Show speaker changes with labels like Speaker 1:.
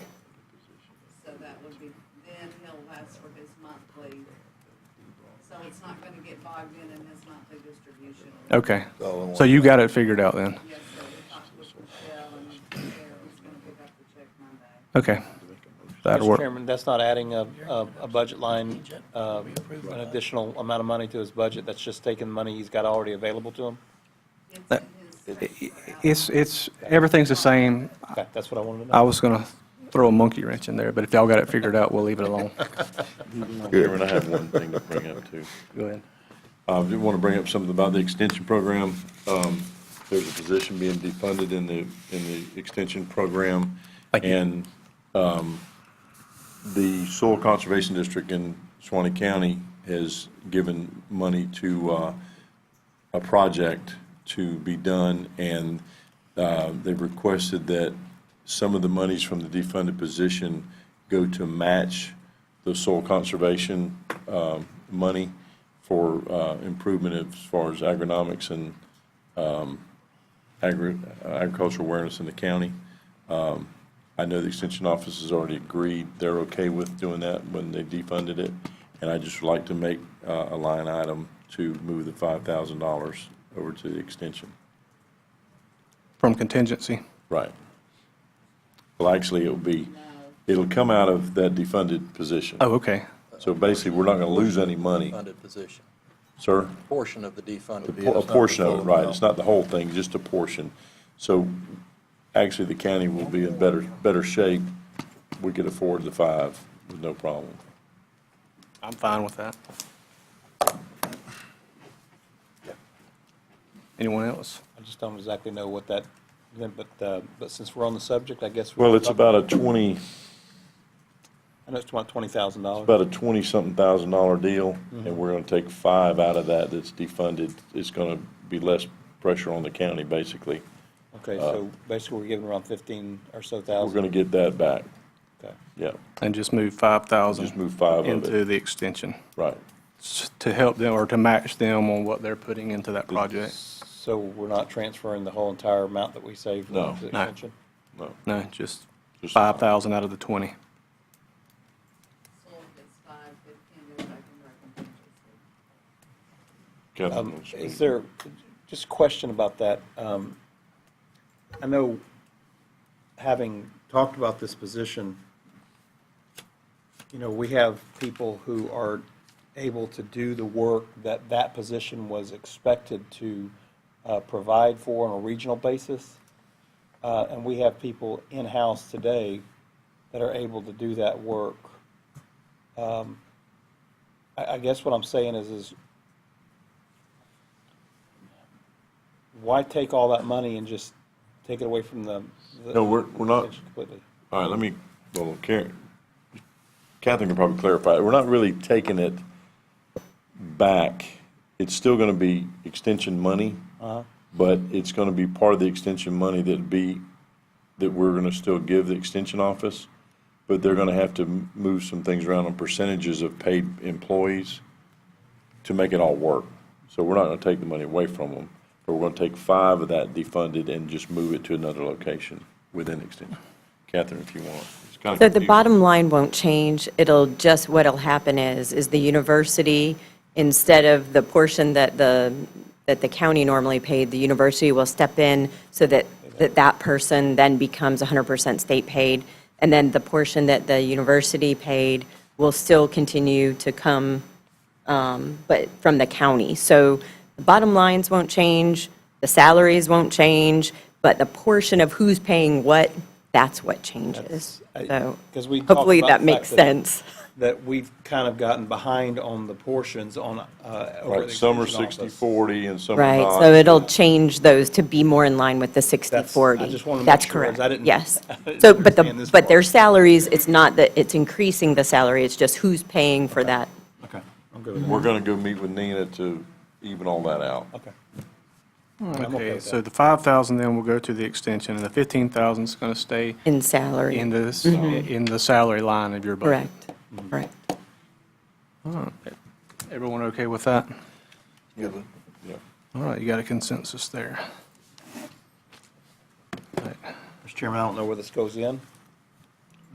Speaker 1: that would be, then he'll ask for his monthly. So it's not gonna get bogged in in his monthly distribution.
Speaker 2: Okay.
Speaker 3: All in
Speaker 2: So you got it figured out then?
Speaker 1: Yes, so we talked with Michelle and Daryl's gonna pick up the check Monday.
Speaker 2: Okay. That'll
Speaker 4: Mr.
Speaker 2: work.
Speaker 4: Chairman, that's not adding a, a, a budget line, uh, an additional amount of money to his budget, that's just taking money he's got already available to him?
Speaker 1: It's
Speaker 2: That-
Speaker 1: in his
Speaker 2: I-
Speaker 1: safe
Speaker 2: i-
Speaker 1: for
Speaker 2: It's, it's, everything's the same.
Speaker 4: Okay, that's what I wanted to know.
Speaker 2: I was going to throw a monkey wrench in there, but if y'all got it figured out, we'll leave it alone.
Speaker 5: Chairman, I have one thing to bring up too.
Speaker 2: Go ahead.
Speaker 5: I do want to bring up something about the extension program. Um, There's a position being defunded in the, in the extension program.
Speaker 2: Thank you.
Speaker 5: And um, the Soil Conservation District in Suwanee County has given money to uh, a project to be done, and uh, they've requested that some of the monies from the defunded position go to match the soil conservation um, money for uh, improvement as far as agronomics and um, agri- agricultural awareness in the county. Um, I know the extension office has already agreed, they're okay with doing that when they defunded it, and I just would like to make uh, a line item to move the $5,000 over to the extension.
Speaker 2: From contingency.
Speaker 5: Right. Well, actually, it'll be, it'll come out of that defunded position.
Speaker 2: Oh, okay.
Speaker 5: So basically, we're not going to lose any money,
Speaker 3: Funded position,
Speaker 5: sir.
Speaker 3: portion of the defunded.
Speaker 5: Po- A portion of it, right, it's not the whole thing, just a portion. So actually, the county will be in better, better shape. We could afford the five with no problem.
Speaker 2: I'm fine with that. Anyone else?
Speaker 4: I just don't exactly know what that, but, uh, but since we're on the subject, I guess. we-
Speaker 5: Well, it's about a 20,
Speaker 4: I know it's about twenty thousand dollars.
Speaker 5: about a 20-something thousand dollar deal,
Speaker 4: Mm-hmm.
Speaker 5: and we're going to take five out of that that's defunded. It's going to be less pressure on the county, basically.
Speaker 4: Okay, so basically, we're giving around fifteen or so
Speaker 5: We're
Speaker 4: thousand.
Speaker 5: going to get that back,
Speaker 4: Okay.
Speaker 5: yeah,
Speaker 2: And just move 5,000.
Speaker 5: Just move five of it.
Speaker 2: Into the extension
Speaker 5: right.
Speaker 2: s- to help them or to match them on what they're putting into that project.
Speaker 4: So we're not transferring the whole entire amount that we saved? from
Speaker 5: No.
Speaker 4: the
Speaker 2: No.
Speaker 4: extension?
Speaker 5: No,
Speaker 2: No, just
Speaker 5: Just-
Speaker 2: 5,000 out of the 20.
Speaker 1: So if it's five, fifteen, if I can recommend it.
Speaker 5: Catherine
Speaker 4: Um,
Speaker 5: will
Speaker 4: Is
Speaker 5: speak.
Speaker 4: there, just a question about that. Um, I know, having talked about this position, you know, we have people who are able to do the work that that position was expected to uh, provide for on a regional basis. Uh, And we have people in-house today that are able to do that work. Um, I, I guess what I'm saying is, is why take all that money and just take it away from the? the-
Speaker 5: No, we're- we're not-
Speaker 4: Completely.
Speaker 5: All right, let me, well, Karen, Catherine can probably clarify. We're not really taking it back. It's still going to be extension money, but it's going to be part of the extension money that'd be, that we're going to still give the extension office, but they're going to have to m- move some things around on percentages of paid employees to make it all work. So we're not going to take the money away from them, but we're going to take five of that defunded and just move it to another location within extension. Catherine, if you want. It's kinda
Speaker 6: So the
Speaker 5: confusing.
Speaker 6: bottom line won't change, it'll just, what'll happen is, is the university, instead of the portion that the, that the county normally paid, the university will step in so that, that that person then becomes 100% state paid, and then the portion that the university paid will still continue to come but from the county. So the bottom lines won't change, the salaries won't change, but the portion of who's paying what, that's what changes.
Speaker 4: That's- I-
Speaker 6: So
Speaker 4: 'cause we talked
Speaker 6: hopefully
Speaker 4: about
Speaker 6: that
Speaker 4: the
Speaker 6: makes
Speaker 4: fact that-
Speaker 6: sense.
Speaker 4: That we've kind of gotten behind on the portions on, uh, over at
Speaker 5: Right,
Speaker 4: the
Speaker 5: some are
Speaker 4: extension office.
Speaker 5: 60, 40, and some are
Speaker 6: Right,
Speaker 5: not.
Speaker 6: so it'll change those to be more in line with the
Speaker 4: That's-
Speaker 6: 60/40.
Speaker 4: I just wanna make
Speaker 6: That's
Speaker 4: sure, 'cause
Speaker 6: correct.
Speaker 4: I didn't-
Speaker 6: Yes.
Speaker 4: I didn't
Speaker 6: So, but
Speaker 4: understand
Speaker 6: the,
Speaker 4: this
Speaker 6: but
Speaker 4: part.
Speaker 6: their salaries, it's not that it's increasing the salary, it's just who's paying for that.
Speaker 4: Okay, I'm good with that.
Speaker 5: We're going to go meet with Nina to even all that out.
Speaker 4: Okay. I'm okay
Speaker 2: Okay,
Speaker 4: with
Speaker 2: so
Speaker 4: that.
Speaker 2: the 5,000 then will go to the extension, and the 15,000 is going to stay
Speaker 6: In salary.
Speaker 2: in this, in the salary line of your budget.
Speaker 6: Correct,
Speaker 4: Mm-hmm.
Speaker 6: correct.
Speaker 2: Everyone okay with that?
Speaker 5: Yeah.
Speaker 2: All right, you got a consensus there. All right.
Speaker 4: Mr. Chairman, I don't know where this goes in.